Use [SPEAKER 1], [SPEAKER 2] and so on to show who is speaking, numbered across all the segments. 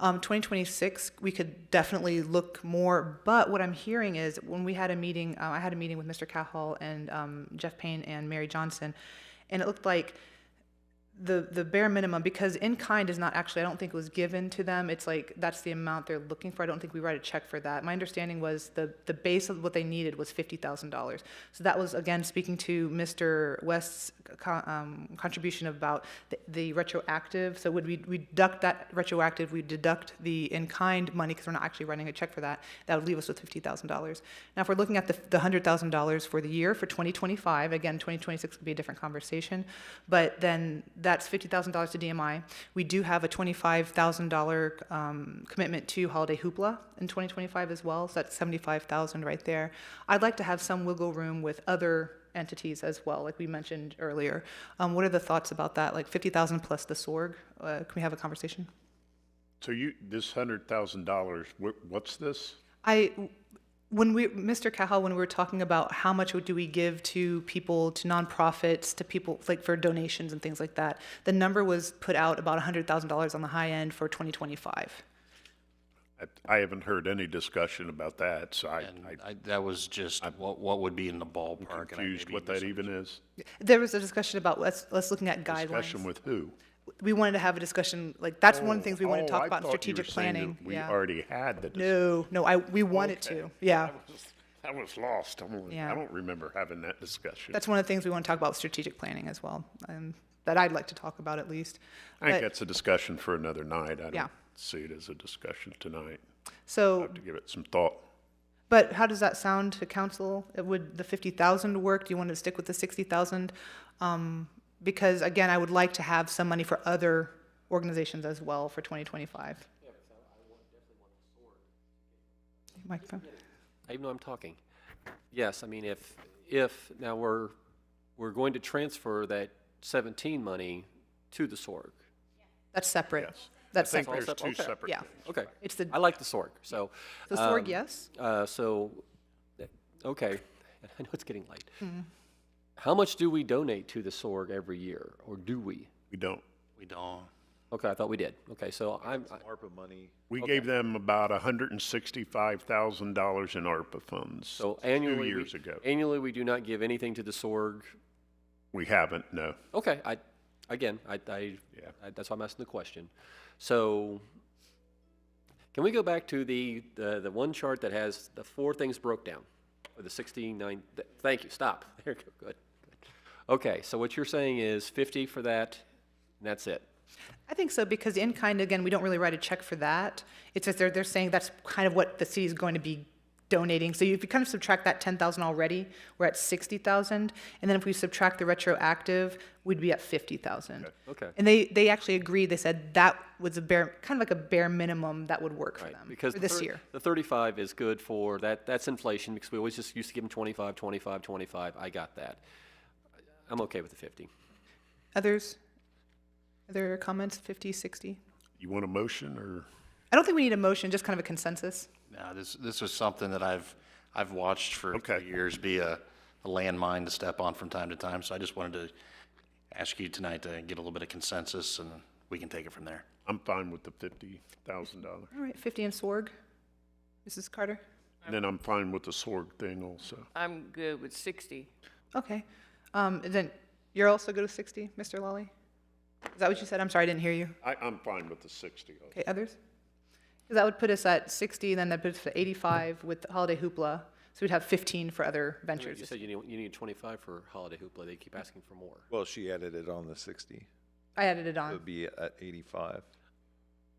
[SPEAKER 1] Um, 2026, we could definitely look more. But what I'm hearing is when we had a meeting, uh, I had a meeting with Mr. Cowhall and um, Jeff Payne and Mary Johnson, and it looked like the the bare minimum because in kind is not actually I don't think it was given to them. It's like that's the amount they're looking for. I don't think we write a check for that. My understanding was the the base of what they needed was fifty thousand dollars. So that was again speaking to Mr. West's co- um, contribution about the, the retroactive. So would we we deduct that retroactive? We deduct the in kind money because we're not actually writing a check for that. That would leave us with fifty thousand dollars. Now if we're looking at the the hundred thousand dollars for the year for twenty twenty five again twenty twenty six would be a different conversation, but then that's $50,000 to DMI. We do have a $25,000 um, commitment to Holiday Hoopla in 2025 as well, so that's 75,000 right there. I'd like to have some wiggle room with other entities as well, like we mentioned earlier. Um, What are the thoughts about that, like 50,000 plus the SORG? Uh, Can we have a conversation?
[SPEAKER 2] So you, this hundred thousand dollars, what's this?
[SPEAKER 1] I, when we, Mr. Cahal, when we were talking about how much do we give to people, to nonprofits, to people, like for donations and things like that, the number was put out about $100,000 on the high end for 2025.
[SPEAKER 2] I- I haven't heard any discussion about that, so I, I'm
[SPEAKER 3] I, that was just what, what would be in the ballpark. and I
[SPEAKER 2] confused
[SPEAKER 3] maybe
[SPEAKER 2] what that even is.
[SPEAKER 1] There was a discussion about let's, let's looking at
[SPEAKER 2] Discussion
[SPEAKER 1] guidelines.
[SPEAKER 2] with who?
[SPEAKER 1] We wanted to have a discussion, like, that's one of the things we want
[SPEAKER 2] Oh,
[SPEAKER 1] to talk
[SPEAKER 2] I
[SPEAKER 1] about in
[SPEAKER 2] thought you
[SPEAKER 1] strategic
[SPEAKER 2] were saying that
[SPEAKER 1] planning.
[SPEAKER 2] We
[SPEAKER 1] Yeah.
[SPEAKER 2] already had the. dis-
[SPEAKER 1] No, no, I, we wanted to, yeah.
[SPEAKER 2] I was lost. I'm, only-
[SPEAKER 1] Yeah.
[SPEAKER 2] I don't remember having that discussion.
[SPEAKER 1] That's one of the things we want to talk about, with strategic planning as well, um, that I'd like to talk about at least.
[SPEAKER 2] I think
[SPEAKER 1] but-
[SPEAKER 2] that's a discussion for another night.
[SPEAKER 1] Yeah.
[SPEAKER 2] I don't see it as a discussion tonight.
[SPEAKER 1] So
[SPEAKER 2] To give it some thought.
[SPEAKER 1] But how does that sound to council? Uh, Would the fifty thousand work? Do you want to stick with the sixty thousand? Um, because again, I would like to have some money for other organizations as well for twenty twenty-five. Microphone.
[SPEAKER 4] I even know I'm talking. Yes, I mean, if, if, now we're, we're going to transfer that 17 money to the SORG.
[SPEAKER 1] That's separate. That's
[SPEAKER 2] I think
[SPEAKER 1] separate.
[SPEAKER 2] there's two
[SPEAKER 4] Okay.
[SPEAKER 2] separate.
[SPEAKER 1] Yeah.
[SPEAKER 4] Okay.
[SPEAKER 1] It's the-
[SPEAKER 4] I like the SORG, so.
[SPEAKER 1] The SORG,
[SPEAKER 4] um,
[SPEAKER 1] yes?
[SPEAKER 4] Uh, so, th- okay, I know it's getting late.
[SPEAKER 1] Mm-hmm.
[SPEAKER 4] How much do we donate to the SORG every year, or do we?
[SPEAKER 2] We don't.
[SPEAKER 3] We don't.
[SPEAKER 4] Okay, I thought we did. Okay, so I'm, I-
[SPEAKER 2] We gave them about hundred and sixty-five thousand dollars in ARPA funds.
[SPEAKER 4] so annually. we-
[SPEAKER 2] years ago.
[SPEAKER 4] Annually, we do not give anything to the SORG.
[SPEAKER 2] We haven't, no.
[SPEAKER 4] Okay, I, again, I, I,
[SPEAKER 2] Yeah.
[SPEAKER 4] I- that's why I'm asking the question. So, can we go back to the, the, the one chart that has the four things broke down? Or the sixty-nine, th- thank you, stop. There you go, good. good. Okay, so what you're saying is fifty for that, and that's it?
[SPEAKER 1] I think so, because in kind, again, we don't really write a check for that. It's just they're, they're saying that's kind of what the city is going to be donating. So if you kind of subtract that ten thousand already, we're at sixty thousand. And then if we subtract the retroactive, we'd be at fifty thousand.
[SPEAKER 4] Okay. Okay.
[SPEAKER 1] And they, they actually agreed, they said that was a bare, kind of like a bare minimum that would work for
[SPEAKER 4] Right,
[SPEAKER 1] them,
[SPEAKER 4] Because
[SPEAKER 1] for
[SPEAKER 4] the
[SPEAKER 1] this
[SPEAKER 4] thir-
[SPEAKER 1] year.
[SPEAKER 4] The thirty-five is good for, that, that's inflation, because we always just used to give them 25, 25, 25. I got that. I'm okay with the fifty.
[SPEAKER 1] Others? Other comments, fifty, sixty?
[SPEAKER 2] You want a motion or?
[SPEAKER 1] I don't think we need a motion, just kind of a consensus.
[SPEAKER 3] No, this, this was something that I've, I've watched for
[SPEAKER 2] Okay.
[SPEAKER 3] years be a a landmine to step on from time to time. So I just wanted to ask you tonight to get a little bit of consensus and we can take it from there.
[SPEAKER 2] I'm fine with the fifty thousand dollars.
[SPEAKER 1] All right, fifty and SORG. Mrs. Carter?
[SPEAKER 2] And then I'm fine with the SORG thing also.
[SPEAKER 5] I'm good with 60.
[SPEAKER 1] Okay. Um, then you're also good with 60, Mr. Lally? Is that what you said? I'm sorry, I didn't hear you.
[SPEAKER 2] I, I'm fine with the sixty. also.
[SPEAKER 1] Okay, others? 'Cause that would put us at 60, then that puts us at 85 with Holiday Hoopla. So we'd have 15 for other ventures.
[SPEAKER 4] You said you need, you need twenty-five for holiday hoopla, they keep asking for more.
[SPEAKER 6] Well, she added it on the 60.
[SPEAKER 1] I added it
[SPEAKER 6] It
[SPEAKER 1] on,
[SPEAKER 6] would be at 85.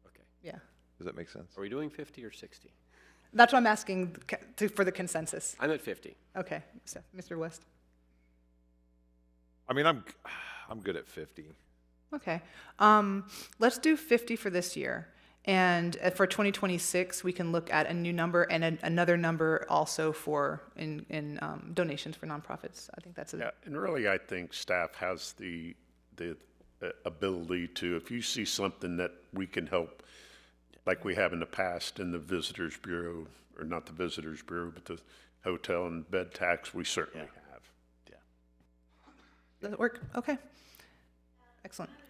[SPEAKER 4] Okay.
[SPEAKER 1] yeah.
[SPEAKER 6] Does that make sense?
[SPEAKER 4] Are we doing 50 or 60?
[SPEAKER 1] That's what I'm asking c- to- for the consensus.
[SPEAKER 4] I'm at 50.
[SPEAKER 1] Okay, so, Mr. West?
[SPEAKER 6] I mean, I'm, I'm good at 50.
[SPEAKER 1] Okay. Um, let's do 50 for this year. And uh, for 2026, we can look at a new number and an another number also for in, in um, donations for nonprofits. I think that's a,
[SPEAKER 2] Yeah, and really, I think staff has the, the uh, ability to, if you see something that we can help, like we have in the past in the Visitors Bureau, or not the Visitors Bureau, but the hotel and bed tax, we certainly have.
[SPEAKER 1] does it work? Okay. Excellent. Uh, um,